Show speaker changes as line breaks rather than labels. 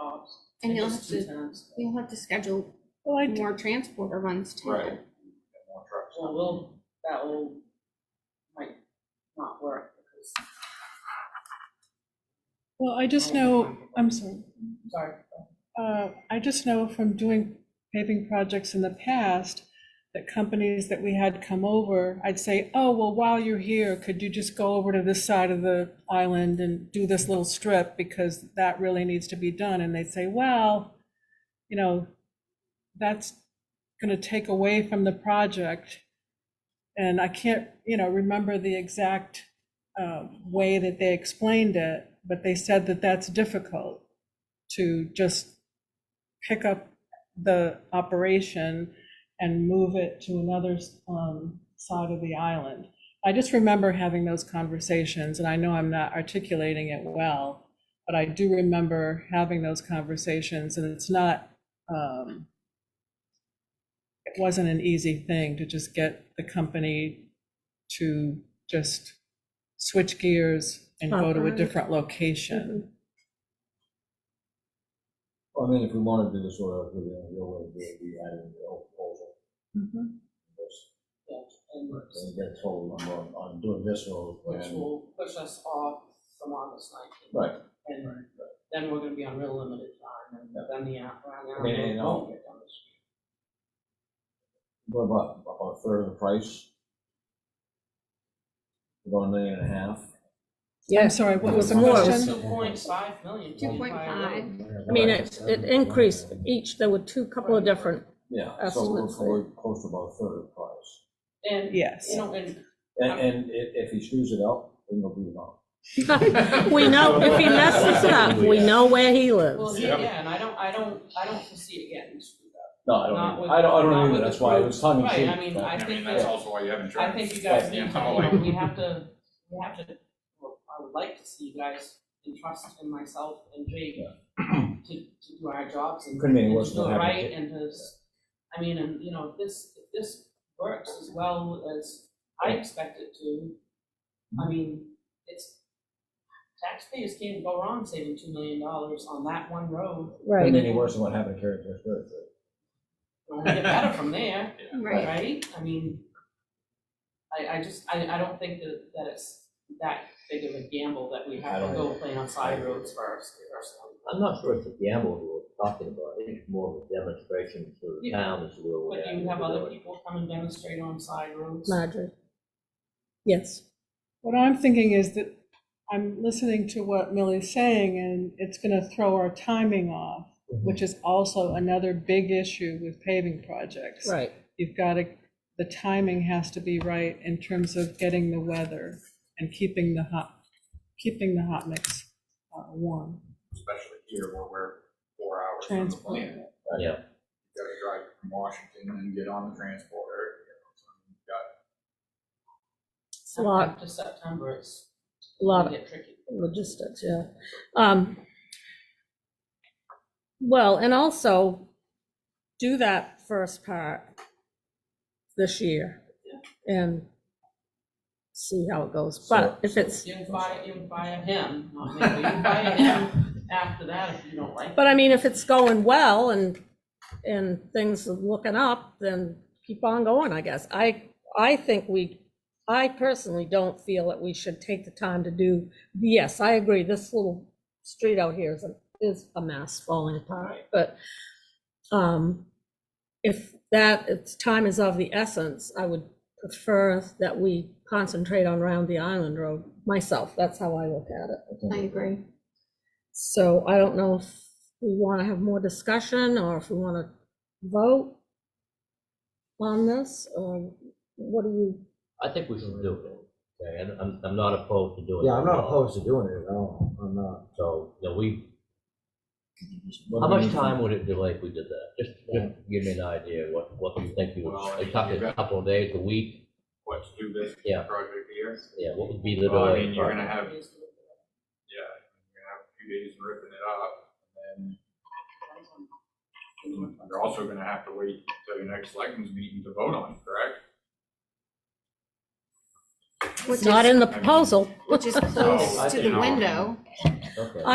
tops.
And you'll
just
have
two times.
You'll have to schedule
Well, I do,
more transporter runs too.
Right. Got more trucks.
Well, we'll, that will, might not work because,
well, I just know, I'm sorry.
sorry.
Uh, I just know from doing paving projects in the past, that companies that we had come over, I'd say, oh, well, while you're here, could you just go over to this side of the island and do this little strip? Because that really needs to be done. And they'd say, well, you know, that's going to take away from the project. And I can't, you know, remember the exact uh, way that they explained it, but they said that that's difficult to just pick up the operation and move it to another um, side of the island. I just remember having those conversations, and I know I'm not articulating it well, but I do remember having those conversations, and it's not, um, it wasn't an easy thing to just get the company to just switch gears and go to a
Uh-huh.
Operate.
different location.
Well, I mean, if we wanted to do this sort of, the real way to do it, we added the old proposal.
Mm-hmm.
Mhm.
Because
Yeah, and
they get told, I'm, on- on doing this or.
which will push us off from August nineteenth.
Right,
And then we're gonna be on real limited time, and then the, app- around the.
And- and I'll-
won't get done this week.
what about, about a third of the price? About a million and a half?
Mm-hmm.
I'm sorry, what was the
More.
question?
Two point five million.
Two point five,
I mean, it, it increased each, there were two, couple of different,
Yeah, so we're,
Estimates.
we're close to about a third of the price.
And, you
Yes.
know, and
And, and if, if he screws it up, then he'll be wrong.
we know, if he messes up, we know where he
Well,
lives.
yeah, yeah, and I don't, I don't, I don't foresee it getting screwed up.
No, I
Not
don't,
with-
either. I don't, I
not
don't either,
with
that's
the
why it
group.
was tongue in
Right,
cheek.
I mean,
but-
I
I
think
mean,
that-
that's also why you have
I
insurance.
think you guys
Yeah,
need to,
I
you
like-
know, we have to, we have to, well, I would like to see you guys entrust in myself and Jake to, to do our jobs and
Couldn't be any
and
worse
to do
than
it
having a
right
kid.
and to, s- I mean, and, you know, if this, if this works as well as I expect it to, I mean, it's, taxpayers can't go wrong saving two million dollars on that one road,
Couldn't
Right,
be any worse than what happened to Carrie Pierce Burke.
It'll only get better from there.
right.
right? I mean, I, I just, I, I don't think that, that it's that big of a gamble that we have
I
to
don't
go
either.
play on side roads first, personally.
I'm not sure it's a gamble we're talking about, I think it's more of a demonstration to the
Yeah.
town as well.
But do you have other people come and demonstrate on side roads?
Marjorie? Yes.
What I'm thinking is that I'm listening to what Millie's saying, and it's gonna throw our timing off,
Mm-hmm.
which is also another big issue with paving projects.
Right,
You've gotta, the timing has to be right in terms of getting the weather and keeping the hot, keeping the hot mix uh, warm.
Especially here where we're four hours from the
Transport.
plant. You
Yeah,
gotta drive from Washington and get on the transporter. you know, so you've got-
it's a lot,
After September, it's
a lot
gonna
of
get tricky.
logistics, yeah. Um, Well, and also do that first part this year and see how it goes. But if it's,
You can fire, you can fire him, not me, but you can fire him after that if you don't like it.
But I mean, if it's going well and, and things are looking up, then keep on going, I guess. I, I think we, I personally don't feel that we should take the time to do, yes, I agree, this little street out here is, a is a mess falling apart, but um, if that, if time is of the essence, I would prefer that we concentrate on Round the Island Road, myself, that's how I look at it.
I agree.
So I don't know if we want to have more discussion or if we want to vote on this, or what do you,
I think we should do it, okay, and I'm, I'm not opposed to doing it.
Yeah, I'm not opposed to doing it at all, I'm not.
So, you know, we, how much time would it delay if we did that? Just, just give me an idea, what, what you think you
Well, I
would,
mean,
it's up
you've
to a
got-
couple of days, a week,
What to do this
Yeah.
project here?
yeah, what would be the
Well, I
delay?
mean, you're gonna have, yeah,
It's-
you're gonna have a few days ripping it up. And then you're also gonna have to wait till your next selectmen's meeting to vote on, it, correct?
Which
not
is-
in the proposal.
Which is
I
close to
think
the
I'll-
window.
Okay.